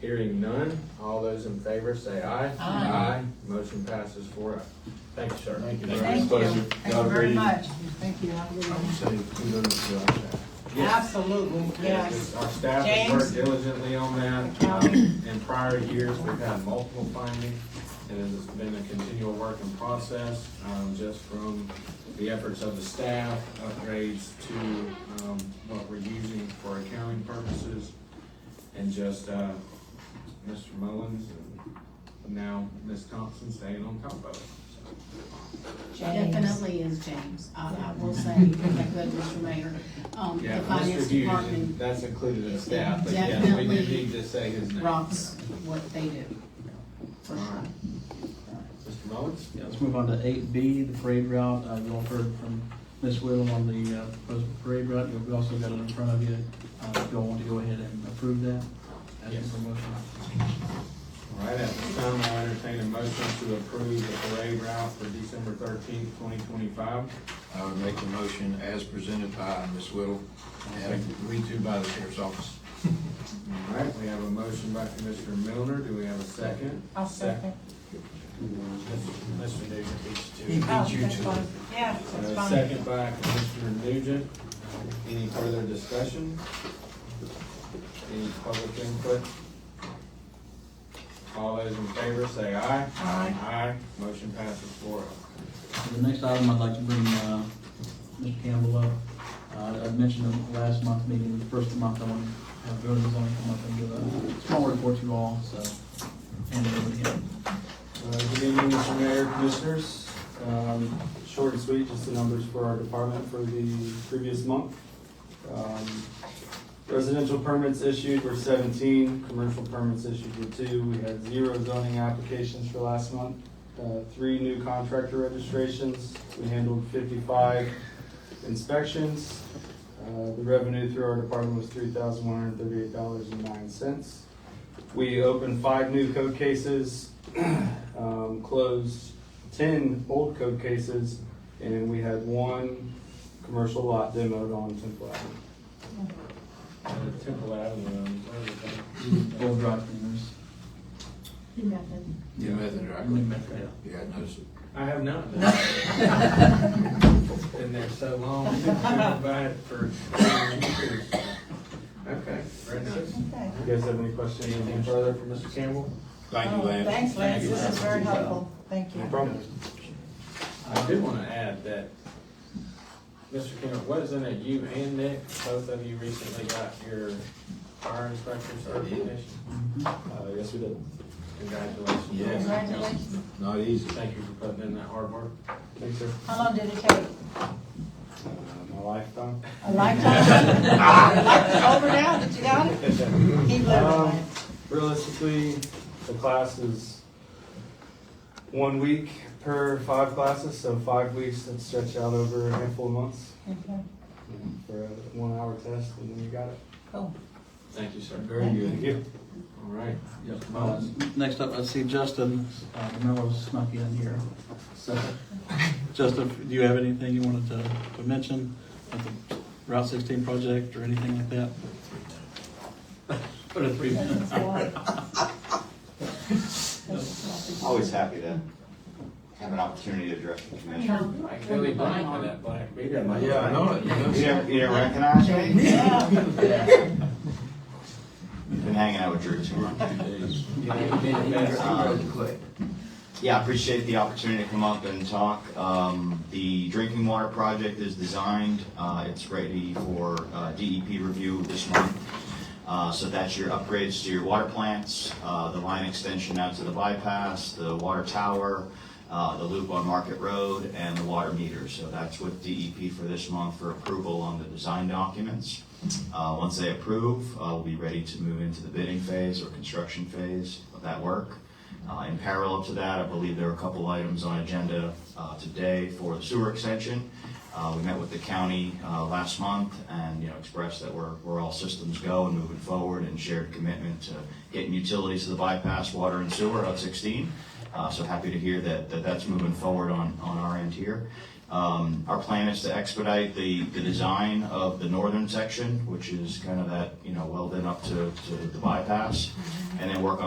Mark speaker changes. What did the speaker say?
Speaker 1: Hearing none, all those in favor say aye.
Speaker 2: Aye.
Speaker 1: Motion passes four oh. Thank you, sir.
Speaker 3: Thank you.
Speaker 2: Thank you,
Speaker 3: Pleasure.
Speaker 2: thank you
Speaker 3: God
Speaker 2: very
Speaker 3: bless
Speaker 2: much. Thank you, have a good one.
Speaker 3: Say kudos to our staff.
Speaker 1: Yes.
Speaker 2: Absolutely, yes.
Speaker 1: Yes, Our staff has worked
Speaker 2: James?
Speaker 1: diligently on that. Um, In prior years, we've had multiple findings, and it's been a continual work in process, um, just from the efforts of the staff, upgrades to, um, what we're using for accounting purposes, and just, uh, Mr. Mullins and now Ms. Thompson staying on top of it.
Speaker 4: James.
Speaker 5: Definitely is James. I, I will say, if I could, Mr. Mayor, um,
Speaker 1: Yeah,
Speaker 5: the
Speaker 1: Mr.
Speaker 5: finance
Speaker 1: Hughes,
Speaker 5: department
Speaker 1: that's included in staff, but yes, we do
Speaker 5: Definitely
Speaker 1: need to say his name.
Speaker 5: rocks what they do, for sure.
Speaker 1: Alright. Mr. Mullins?
Speaker 6: Yeah, let's move on to eight B, the parade route. Uh, you all heard from Ms. Whittle on the, uh, proposed parade route. You've also got it in front of you. Uh, if y'all want to go ahead and approve that as
Speaker 1: Yes.
Speaker 6: a promotion.
Speaker 1: All right, at this time, I'll entertain a motion to approve the parade route for December thirteenth, twenty twenty-five.
Speaker 3: I would make the motion as presented by Ms. Whittle and agreed to by the sheriff's office.
Speaker 1: All right, we have a motion by Commissioner Milner, do we have a second?
Speaker 2: I'll second.
Speaker 1: Mr. Nugent.
Speaker 3: He beat you to it.
Speaker 2: Oh, Yeah,
Speaker 1: And
Speaker 2: that's
Speaker 1: a
Speaker 2: fine.
Speaker 1: uh, second by Commissioner Nugent. Any further discussion? Any public input? All those in favor say aye. Aye. Aye, motion passes four oh.
Speaker 6: So the next item, I'd like to bring, uh, Mr. Campbell up. Uh, I mentioned in the last month meeting, the first of the month, I want to have voters on come up and give a small report to you all, so. Hand it over to him.
Speaker 7: Uh, Good evening, Mr. Mayor, Commissioners. Um, Short and sweet, just the numbers for our department for the previous month. Um, Residential permits issued were seventeen, commercial permits issued were two. We had zero zoning applications for last month, uh, three new contractor registrations. We handled fifty-five inspections. Uh, The revenue through our department was three thousand one hundred thirty-eight dollars and nine cents. We opened five new code cases, um, closed ten old code cases, and we had one commercial lot demoed on Temple Avenue.
Speaker 1: And Temple Avenue, um, what is it?
Speaker 6: Full drive cleaners.
Speaker 3: The method, I
Speaker 6: Link
Speaker 3: couldn't,
Speaker 6: back there.
Speaker 3: yeah, I noticed it.
Speaker 1: I have not. Been there so long, by it for years. Okay, very nice.
Speaker 2: Okay.
Speaker 7: You guys have any questions?
Speaker 1: Anything further from Mr. Campbell?
Speaker 3: Thank you,
Speaker 2: Oh,
Speaker 3: Lance.
Speaker 2: Thanks, Lance,
Speaker 1: you,
Speaker 2: this is
Speaker 1: Lance.
Speaker 2: very helpful, thank you.
Speaker 7: No problem.
Speaker 1: I do want to add that, Mr. Campbell, wasn't it you and Nick, both of you recently got your fire inspector certification?
Speaker 7: Uh, yes, we did.
Speaker 1: Congratulations.
Speaker 3: Yes.
Speaker 2: Congratulations.
Speaker 3: Not easy.
Speaker 1: Thank you for putting in that hard work.
Speaker 7: Thanks, sir.
Speaker 2: How long did it take?
Speaker 7: Uh, My lifetime.
Speaker 2: A lifetime? Your life is over now that you got it? Keep living,
Speaker 7: Um,
Speaker 2: Lance.
Speaker 7: Realistically, the class is one week per five classes, so five weeks that stretch out over a handful of months
Speaker 2: Okay,
Speaker 7: for a one-hour test, and then you got it.
Speaker 2: Cool.
Speaker 1: Thank you, sir.
Speaker 3: Very
Speaker 7: Thank
Speaker 3: good.
Speaker 7: you.
Speaker 1: All right.
Speaker 6: Yep. Uh, Next up, I see Justin, uh, Mello snuck in here. So, Justin, do you have anything you wanted to, to mention at the Route sixteen project or anything like that? Put a three minute.
Speaker 2: That's why.
Speaker 8: Always happy to have an opportunity to address the commission.
Speaker 1: Like Billy Blank with that black beard.
Speaker 3: Yeah, I know it. You
Speaker 8: You
Speaker 3: noticed
Speaker 8: didn't, you didn't recognize me?
Speaker 2: Yeah.
Speaker 8: Been hanging out with Drew too much.
Speaker 3: it.
Speaker 8: Um, Yeah, I appreciate the opportunity to come up and talk. Um, The drinking water project is designed, uh, it's ready for uh, DEP review this month. Uh, So that's your upgrades to your water plants, uh, the line extension out to the bypass, the water tower, uh, the loop on Market Road, and the water meter. So that's with DEP for this month for approval on the design documents. Uh, Once they approve, uh, we'll be ready to move into the bidding phase or construction phase of that work. Uh, In parallel to that, I believe there are a couple items on agenda uh, today for the sewer extension. Uh, We met with the county uh, last month and, you know, expressed that we're, we're all systems go and moving forward and shared commitment to getting utilities to the bypass, water and sewer, Route 16. Uh, So happy to hear that, that that's moving forward on, on our end here. Um, Our plan is to expedite the, the design of the northern section, which is kind of that, you know, welded up to, to the bypass, and then work on